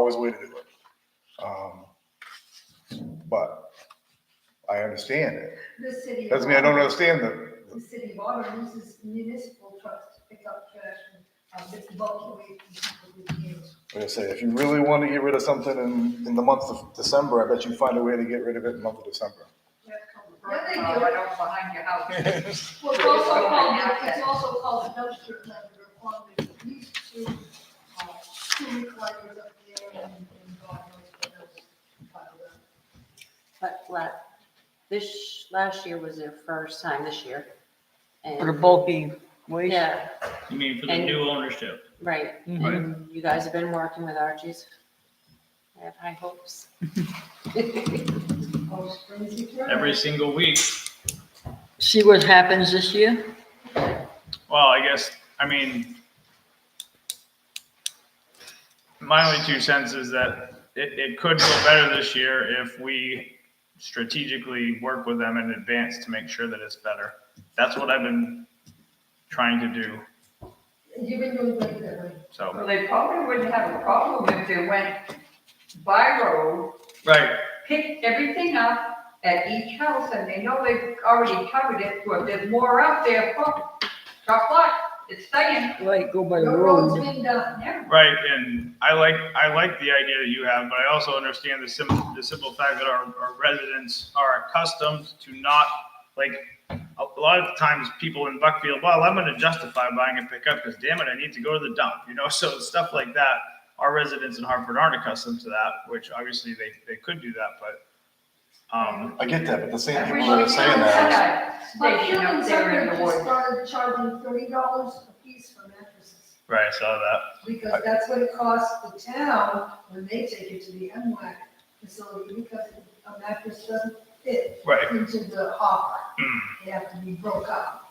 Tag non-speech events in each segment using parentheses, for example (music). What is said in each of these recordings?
always way to do it. Um, But I understand it. The city. of Doesn't mean I don't Auburn- understand the, The city of Auburn uses municipal trucks to pick up trash and, um, it's bulky waste and people who use. like I say, if you really want to get rid of something in, in the month of December, I bet you find a way to get rid of it in the month of December. Then they do, Oh, well, right out behind your house. it's also called, it's also called a dumpster cleaner, one that used to, uh, two recliners up there and, and God knows what else. piled up. But la, this, last year was their first time this year. For the And, bulky waste? yeah, You mean for the And- new ownership? right. Mhm. And you guys have been working with Archie's. I have high hopes. Oh, springs you turn. Every single week. See what happens this year? Well, I guess, I mean, my only two cents is that it, it could go better this year if we strategically work with them in advance to make sure that it's better. That's what I've been trying to do, You've been doing things that way. so. Well, they probably wouldn't have a problem if they went by road, Right. picked everything up at each house, and they know they've already covered it, so if there's more out there, fuck, drop lot, it's staying. Like, go by the Your road's road. been done, Yeah, Right, and I like, I like the idea that you have, but I also understand the simple, the simple fact that our, our residents are accustomed to not, like, a lot of times people in Buckfield, well, I'm gonna justify buying a pickup, because damn it, I need to go to the dump, you know, (laughs) so stuff like that. Our residents in Hartford aren't accustomed to that, which obviously they, they could do that, but, um, I get that, but the same I people wish that we are had saying that, that But station Human up there in Centered the just woods. started charging thirty dollars a piece for mattresses, right, I saw that. because that's what it costs the town when they take it to the MWAC facility, because a mattress doesn't fit Right. into the hopper, Hmm. they have to be broke up.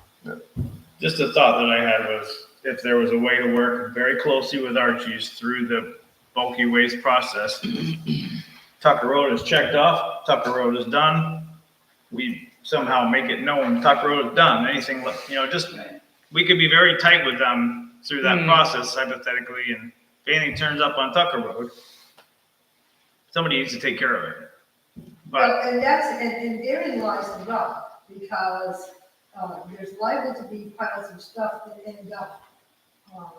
Just a thought that I had was if there was a way to work very closely with Archie's through the bulky waste process. (clears throat) Tucker Road is checked off, Tucker Road is done. We somehow make it known Tucker Road is done, anything, li- you know, just, we could be very tight with them through that process hypothetically, and if anything turns up on Tucker Road, somebody needs to take care of it. But, But, and that's, and, and therein lies the rub, because, uh, there's liable to be piles of stuff that end up, um,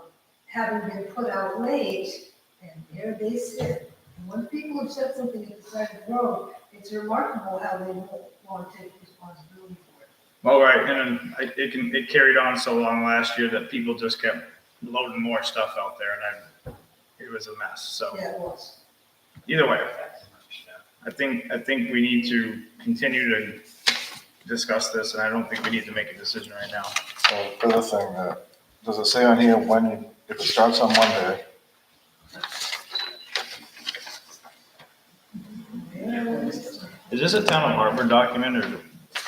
having been put out late, and there they sit. And when people have said something at the side of the road, it's remarkable how they won't want to take responsibility for it. all right, and then I- it can, it carried on so long last year that people just kept loading more stuff out there, and I, it was a mess, so. Yeah, it was. either way, I think, I think we need to continue to discuss this, and I don't think we need to make a decision right now. so, the other thing, uh, does it say on here when, you- if it starts on Monday? Is this a town of Hartford document or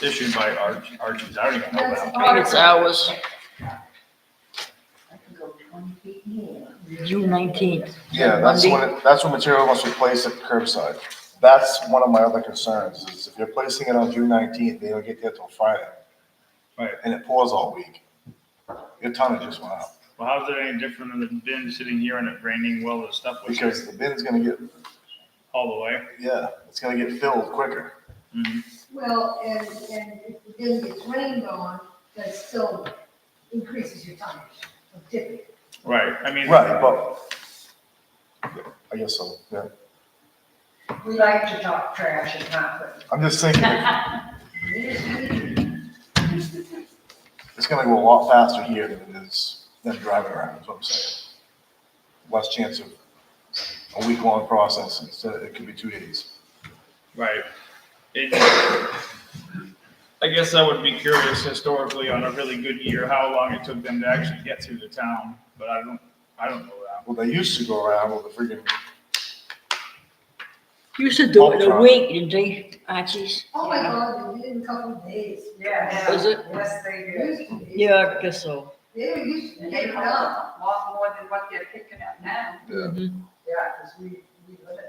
issued by Arch, Archie's? I don't even know that. It's ours, I can go twenty feet more. June nineteenth. Yeah, that's when, it- that's when material must be placed at curbside. That's one of my other concerns, is if you're placing it on June nineteenth, they don't get there till Friday. Right. And it pours all week. Your tonnage just went up, Well, how's it any different than been sitting here and it raining well the stuff was because the bin's gonna get, all the way? yeah, it's gonna get filled quicker. Mhm. Well, and, and if the bin gets rained on, that still increases your tonnage of tipping. Right, I mean. Right, but, I guess so, yeah. We like to talk trash and conflict. I'm just thinking, it's gonna go a lot faster here than it is than driving around, is what I'm saying. Less chance of a week-long process, instead, it could be two days. Right. It- I guess I would be curious historically on a really good year, how long it took them to actually get through the town, but I don't, I don't know that. Well, they used to go around with a freaking, Used to do it in a Ultron. week, didn't they, Archie's? Oh my God, they did in a couple of days. Yeah. Is it? Yes, they They do. used to be- Yeah, I guess so. They were used to And they take it come up. up a lot more than what they're picking up now. Yeah, because we, we live it.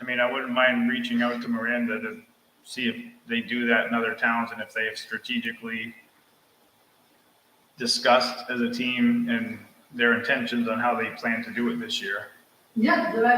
I mean, I wouldn't mind reaching out to Miranda to see if they do that in other towns and if they have strategically discussed as a team and their intentions on how they plan to do it this year. Yeah, but I